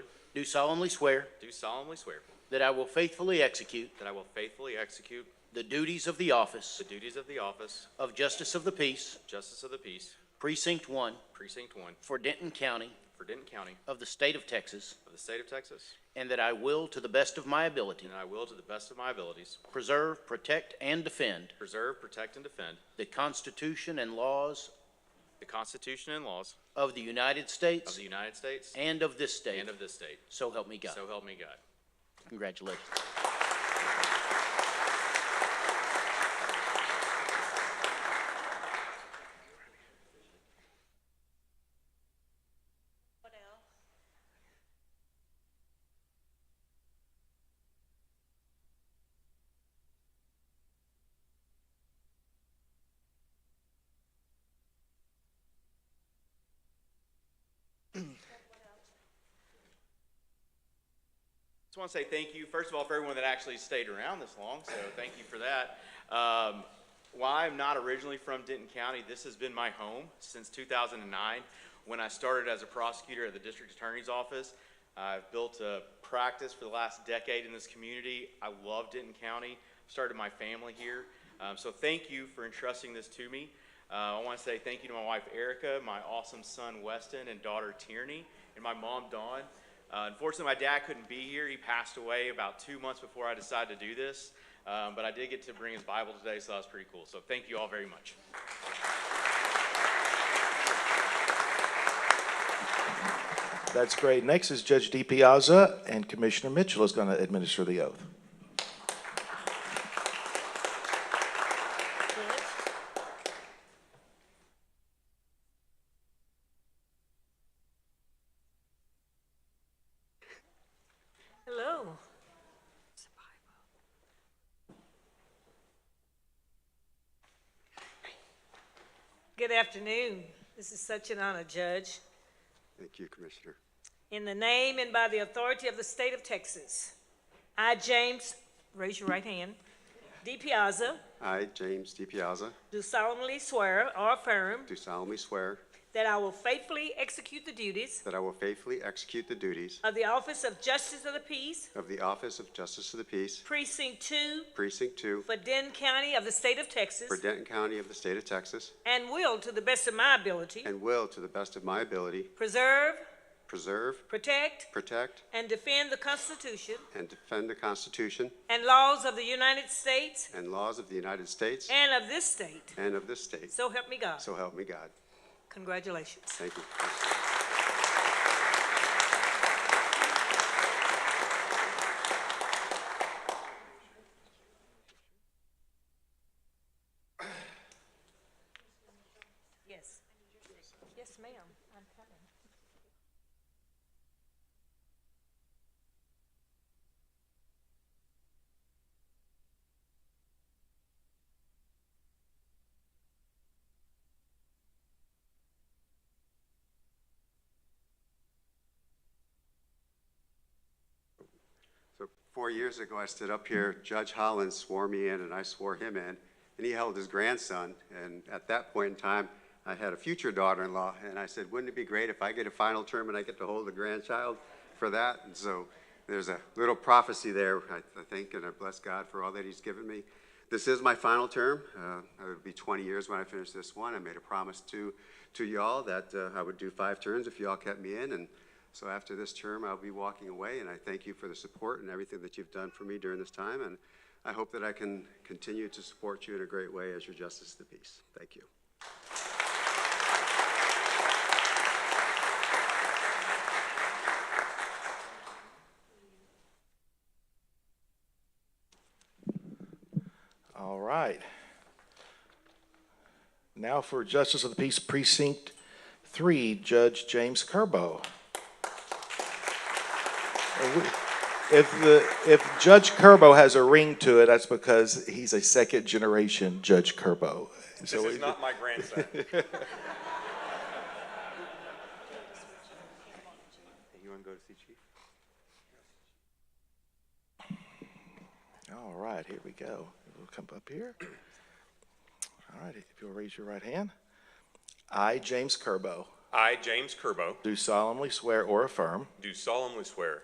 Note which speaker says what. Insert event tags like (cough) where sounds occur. Speaker 1: do solemnly swear
Speaker 2: do solemnly swear
Speaker 1: that I will faithfully execute
Speaker 2: that I will faithfully execute
Speaker 1: the duties of the office
Speaker 2: the duties of the office
Speaker 1: of Justice of the Peace,
Speaker 2: of Justice of the Peace,
Speaker 1: Precinct 1,
Speaker 2: Precinct 1,
Speaker 1: for Denton County
Speaker 2: for Denton County
Speaker 1: of the State of Texas,
Speaker 2: of the State of Texas,
Speaker 1: and that I will, to the best of my ability,
Speaker 2: and I will, to the best of my abilities,
Speaker 1: preserve, protect, and defend
Speaker 2: preserve, protect, and defend
Speaker 1: the Constitution and laws
Speaker 2: the Constitution and laws
Speaker 1: of the United
Speaker 2: of
Speaker 1: States
Speaker 2: the United States
Speaker 1: and of this state.
Speaker 2: and of this state.
Speaker 1: So help me God.
Speaker 2: So help me God.
Speaker 1: Congratulations.
Speaker 3: What else?
Speaker 2: Just want to say thank you, first of all, for everyone that actually stayed around this long, so thank you for that. Um, While I'm not originally from Denton County, this has been my home since 2009, when I started as a prosecutor at the district attorney's office. I've built a practice for the last decade in this community. I love Denton County, started my family here, Um, so thank you for entrusting this to me. Uh, I want to say thank you to my wife Erica, my awesome son Weston, and daughter Tierney, and my mom Dawn. Uh, unfortunately, my dad couldn't be here. He passed away about two months before I decided to do this. Um, but I did get to bring his Bible today, so that was pretty cool. So thank you all very much.
Speaker 4: That's great. Next is Judge DiPiazza, and Commissioner Mitchell is going to administer the oath.
Speaker 3: Hello. Good afternoon. This is such an honor, Judge.
Speaker 5: Thank you, Commissioner.
Speaker 3: In the name and by the authority of the state of Texas, I, James, raise your right hand, D. Piazza,
Speaker 5: I, James D. Piazza,
Speaker 3: do solemnly swear or affirm
Speaker 5: do solemnly swear
Speaker 3: that I will faithfully execute the duties
Speaker 5: that I will faithfully execute the duties
Speaker 3: of the Office of Justice of the Peace,
Speaker 5: of the Office of Justice of the Peace,
Speaker 3: Precinct 2,
Speaker 5: Precinct 2,
Speaker 3: for Denton County of the state of Texas,
Speaker 5: for Denton County of the State of Texas,
Speaker 3: and will, to the best of my ability,
Speaker 5: and will, to the best of my ability,
Speaker 3: preserve,
Speaker 5: preserve,
Speaker 3: protect,
Speaker 5: protect,
Speaker 3: and defend the Constitution
Speaker 5: and defend the Constitution
Speaker 3: and laws of the United States
Speaker 5: and laws of the United States
Speaker 3: and of this state.
Speaker 5: and of this state.
Speaker 3: So help me God.
Speaker 5: So help me God.
Speaker 3: Congratulations.
Speaker 5: Thank you.
Speaker 3: Yes. Yes, ma'am. I'm coming.
Speaker 5: So four years ago, I stood up here, Judge Hollins swore me in, and I swore him in, and he held his grandson. And at that point in time, I had a future daughter-in-law, and I said, wouldn't it be great if I get a final term and I get to hold a grandchild for that? And so there's a little prophecy there, I I think, and I bless God for all that he's given me. This is my final term. Uh, It'll be 20 years when I finish this one. I made a promise to, to y'all that uh, I would do five terms if y'all kept me in, and so after this term, I'll be walking away, and I thank you for the support and everything that you've done for me during this time, and I hope that I can continue to support you in a great way as your justice of the peace. Thank you.
Speaker 4: All right. Now for Justice of the Peace Precinct 3, Judge James Kerbo. If the, if Judge Kerbo has a ring to it, that's because he's a second-generation Judge Kerbo. This
Speaker 6: This is not my grandson.
Speaker 5: You want to go to see Chief?
Speaker 4: All right, here we go. We'll come up here. All right, if you'll raise your right hand. I, James Kerbo,
Speaker 6: (laughs) I, James Kerbo,
Speaker 4: do solemnly swear or affirm
Speaker 6: do solemnly swear